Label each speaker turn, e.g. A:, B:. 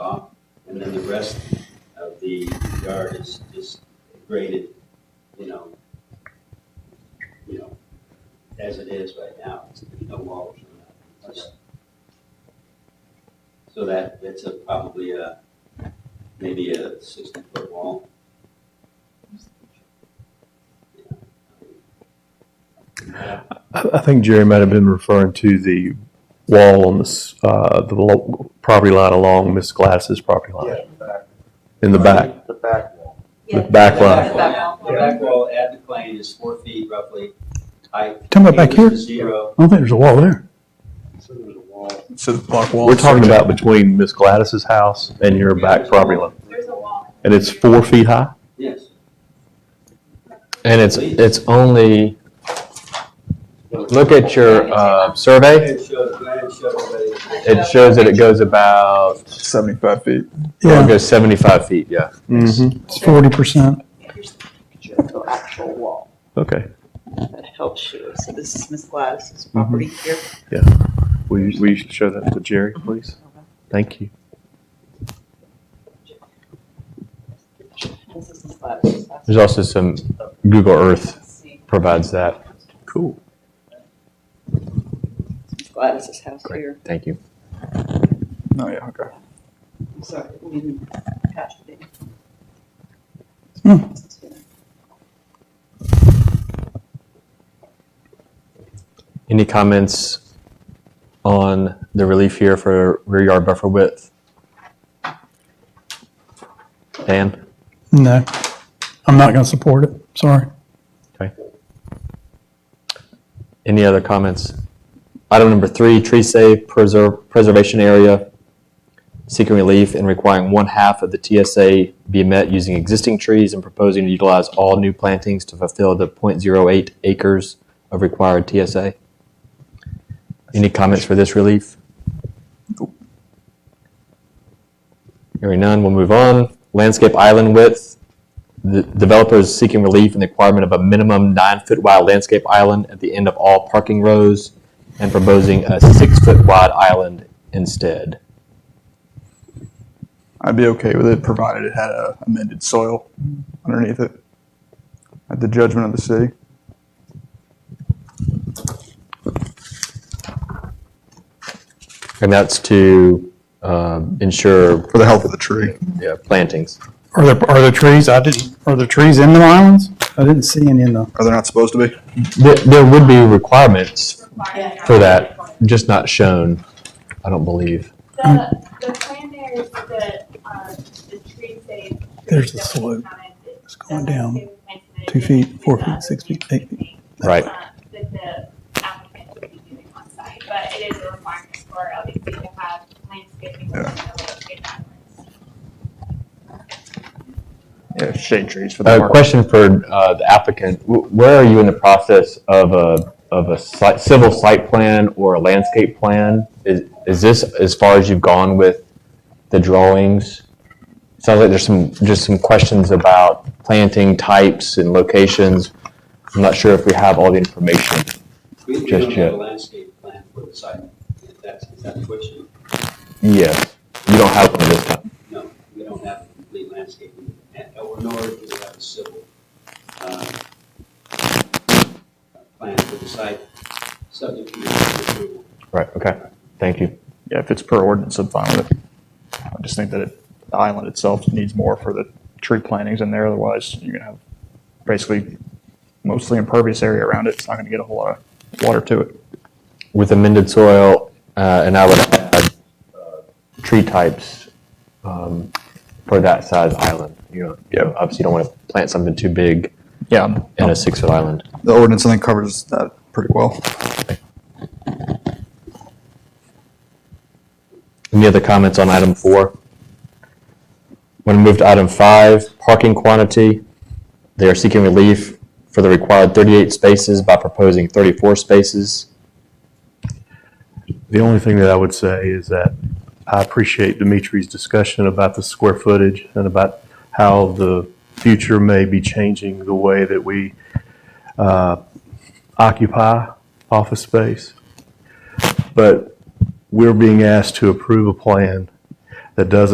A: and then the rest of the yard is just graded, you know, you know, as it is right now, It's- there's no walls or nothing. It's just- So that, it's a, probably a, maybe a sixty-foot wall.
B: I I think Jerry might have been referring to the wall on this, uh, the lo- property line along Miss Glass's property line
C: Yeah, the back.
B: in the back,
C: The back wall.
B: the back line.
A: The back wall- the back wall at the plane is four feet roughly height.
D: Talking about back
A: Eight is
D: here?
A: Zero.
D: I don't think there's a wall there.
C: So there's a wall.
E: So the block wall.
B: We're talking about between Miss Gladys's house and your back property line,
F: There's a wall.
B: and it's four feet high.
A: Yes.
G: And it's, it's only, look at your uh, survey,
A: Granite showed, granite showed already.
G: it shows that it goes about,
E: Seventy-five feet.
G: it
D: Yeah,
G: goes 75 feet, yeah.
B: Mm-hmm.
D: it's forty percent.
F: Here's the picture of the actual wall
B: Okay,
F: that helps you. So this is Miss Gladys's
G: Mm-hmm.
F: property here.
B: will you, will you show that to Jerry, please? Thank you.
F: This is Miss Gladys's. house.
G: There's also some, Google Earth provides that.
B: Cool.
F: Miss Gladys's house here.
G: Thank you.
E: No, yeah, okay.
F: I'm sorry, we didn't attach it.
D: Hmm.
G: Any comments on the relief here for rear yard buffer width? Dan?
D: No, I'm not going to support it. Sorry.
G: Any other comments? Item number three, tree save preserve, preservation area, seeking relief and requiring one half of the TSA be met using existing trees and proposing to utilize all new plantings to fulfill the 0.08 acres of required TSA. Any comments for this relief? Hearing none, we'll move on. Landscape island width, the developer is seeking relief in the requirement of a minimum nine-foot wide landscape island at the end of all parking rows and proposing a six-foot wide island instead.
E: I'd be okay with it provided it had a amended soil underneath it at the judgment of the city.
G: And that's to uh, ensure
E: For the health of the tree.
G: yeah, plantings.
D: Are there, are there trees? I didn't, are there trees in the islands? I didn't see any in the,
E: Are they not supposed to be?
G: There, there would be requirements,
F: Yeah.
G: For that. just not shown, I don't believe.
H: The, the plan there is that, uh, the tree stays.
D: There's the slope.
H: It's
D: going down two feet, four
H: Uh,
D: feet, six feet, eight
H: feet.
G: Right.
H: uh, That the applicant would be doing on site, but it is a requirement for LDC to have landscaping within the landscape guidelines.
E: Yeah, shade trees for
G: A question for uh, the applicant, W- where are you in the process of a, of a site- civil site plan or a landscape plan? Is, is this as far as you've gone with the drawings? Sounds like there's some, just some questions about planting types and locations. I'm not sure if we have all the information.
A: We we
G: Just
A: don't have
G: yet.
A: a landscape plan for the site. If that's, is that the question?
G: Yes, you don't have one this time.
A: No, we don't have a complete landscaping, and- or nor do we have a civil uh, plan for the site, subject to your approval.
G: Right, okay, thank you.
E: Yeah, if it's per ordinance, I'm fine with it. I just think that it, the island itself needs more for the tree plantings in there, otherwise you're gonna have basically mostly impervious area around it. It's not gonna get a whole lot of water to it.
G: With amended soil, uh, and I would add uh, tree types um, for that size island. You know, you know, obviously you don't want to plant something too big
E: Yeah, I'm-
G: in a six-foot island.
E: the ordinance I think covers that pretty well.
G: Any other comments on item four? Want to move to item five, parking quantity. They are seeking relief for the required 38 spaces by proposing 34 spaces.
B: The only thing that I would say is that I appreciate Dimitri's discussion about the square footage and about how the future may be changing the way that we uh, occupy office space. But we're being asked to approve a plan that doesn't